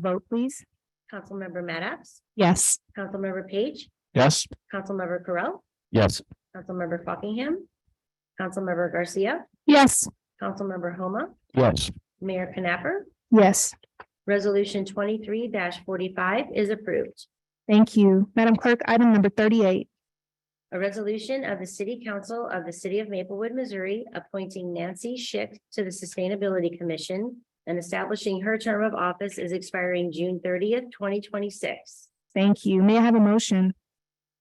Vote, please. Councilmember Maddox, Yes. Councilmember Page, Yes. Councilmember Correll, Yes. Councilmember Fockingham, Councilmember Garcia, Yes. Councilmember Homa, Yes. Mayor Knapper. Yes. Resolution twenty-three forty-five is approved. Thank you. Madam Clerk, item number thirty-eight. A resolution of the City Council of the City of Maplewood, Missouri, appointing Nancy Schick to the Sustainability Commission and establishing her term of office is expiring June thirtieth, twenty twenty-six. Thank you. May I have a motion?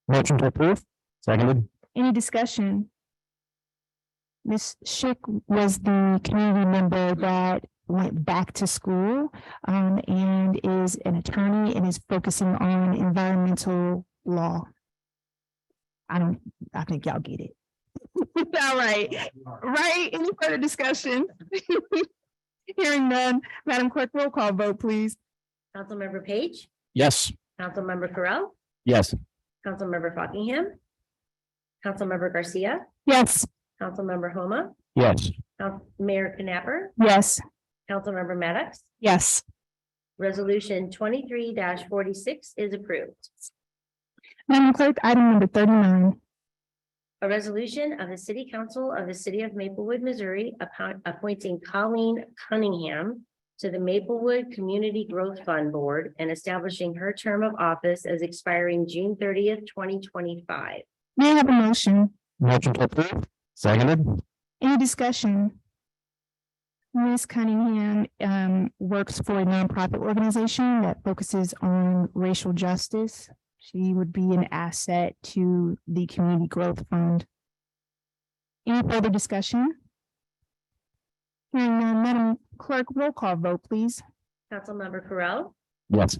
Motion to approve. Seconded. Any discussion? Ms. Schick was the community member that went back to school um, and is an attorney and is focusing on environmental law. I don't, I think y'all get it. All right, right? Any further discussion? Hearing none. Madam Clerk, roll call vote, please. Councilmember Page, Yes. Councilmember Correll, Yes. Councilmember Fockingham, Councilmember Garcia, Yes. Councilmember Homa, Yes. Coun- Mayor Knapper, Yes. Councilmember Maddox. Yes. Resolution twenty-three forty-six is approved. Madam Clerk, item number thirty-nine. A resolution of the City Council of the City of Maplewood, Missouri, upon appointing Colleen Cunningham to the Maplewood Community Growth Fund Board and establishing her term of office as expiring June thirtieth, twenty twenty-five. May I have a motion? Motion to approve. Seconded. Any discussion? Ms. Cunningham um, works for a nonprofit organization that focuses on racial justice. She would be an asset to the Community Growth Fund. Any further discussion? Hearing none, Madam Clerk, roll call vote, please. Councilmember Correll, Yes.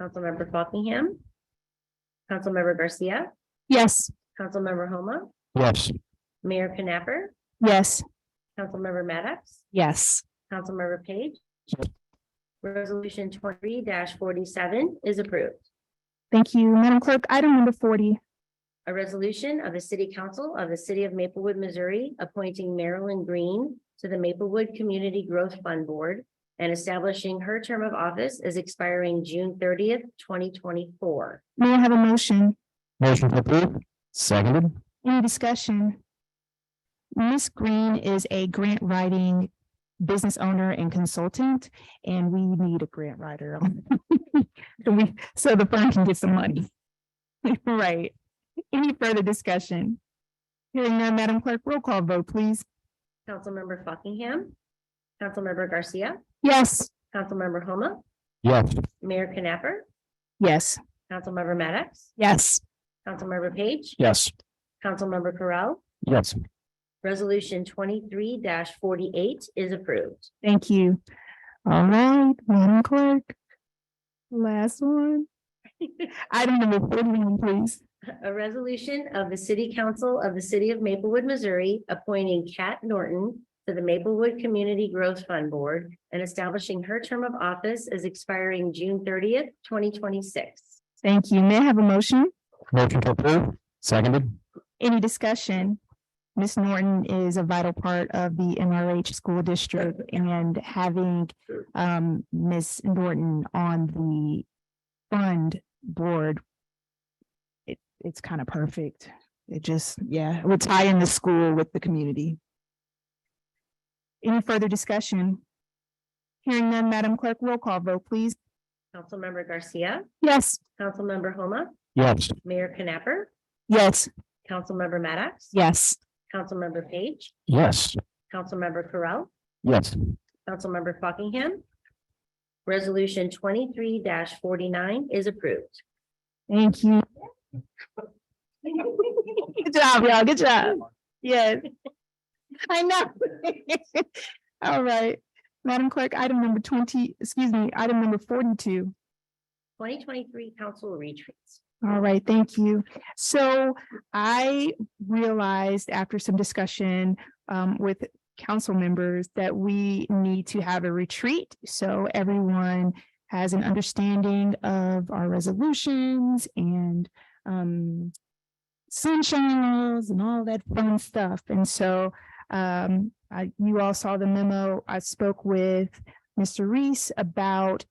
Councilmember Fockingham, Councilmember Garcia, Yes. Councilmember Homa, Yes. Mayor Knapper, Yes. Councilmember Maddox, Yes. Councilmember Page. Yes. Resolution twenty forty-seven is approved. Thank you. Madam Clerk, item number forty. A resolution of the City Council of the City of Maplewood, Missouri, appointing Marilyn Green to the Maplewood Community Growth Fund Board and establishing her term of office as expiring June thirtieth, twenty twenty-four. May I have a motion? Motion to approve. Seconded. Any discussion? Ms. Green is a grant writing business owner and consultant, and we need a grant writer. on- So we, so the firm can get some money. Right. Any further discussion? Hearing none, Madam Clerk, roll call vote, please. Councilmember Fockingham, Councilmember Garcia, Yes. Councilmember Homa, Yes. Mayor Knapper, Yes. Councilmember Maddox, Yes. Councilmember Page, Yes. Councilmember Correll, Yes. Resolution twenty-three forty-eight is approved. Thank you. All right, Madam Clerk. Last one. Item number forty-one, please. A resolution of the City Council of the City of Maplewood, Missouri, appointing Kat Norton to the Maplewood Community Growth Fund Board and establishing her term of office as expiring June thirtieth, twenty twenty-six. Thank you. May I have a motion? Motion to approve. Seconded. Any discussion? Ms. Norton is a vital part of the MRH school district and having um Ms. Norton on the fund board. It it's kind of perfect. It just, yeah, we're tying the school with the community. Any further discussion? Hearing none, Madam Clerk, roll call vote, please. Councilmember Garcia, Yes. Councilmember Homa, Yes. Mayor Knapper, Yes. Councilmember Maddox. Yes. Councilmember Page, Yes. Councilmember Correll, Yes. Councilmember Fockingham. Resolution twenty-three forty-nine is approved. Thank you. Good job, y'all. Good job. Yes. I know. All right. Madam Clerk, item number twenty, excuse me, item number forty-two. Twenty twenty-three council retreats. All right, thank you. So I realized after some discussion um, with council members that we need to have a retreat. So everyone has an understanding of our resolutions and um, sunshine laws and all that fun stuff. And so um, I, you all saw the memo. I spoke with Mr. Reese about